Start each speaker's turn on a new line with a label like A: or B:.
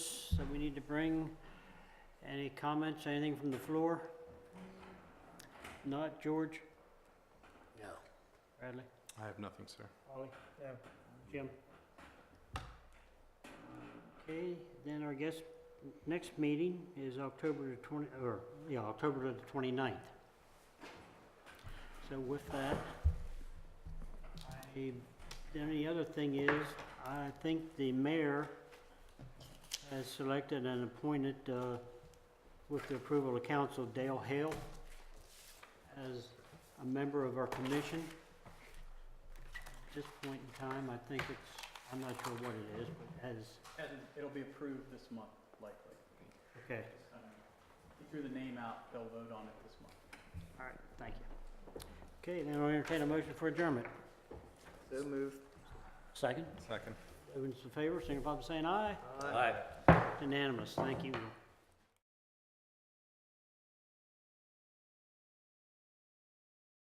A: that we need to bring? Any comments, anything from the floor? Not George?
B: No.
A: Bradley?
C: I have nothing, sir.
A: Ollie? Yeah. Jim? Okay, then our guest, next meeting is October the twenty, or, yeah, October the twenty-ninth. So with that, I, then the other thing is, I think the mayor has selected and appointed, uh, with the approval of council, Dale Hale as a member of our commission. At this point in time, I think it's, I'm not sure what it is, but as,
D: Hasn't, it'll be approved this month likely.
A: okay,
D: Um, He threw the name out, they'll vote on it this month.
A: all right, thank you. Okay, then I'll entertain a motion for adjournment.
B: So moved.
A: Second,
C: Second.
A: those in favor, signify by saying aye.
B: Aye.
A: Unanimous, thank you.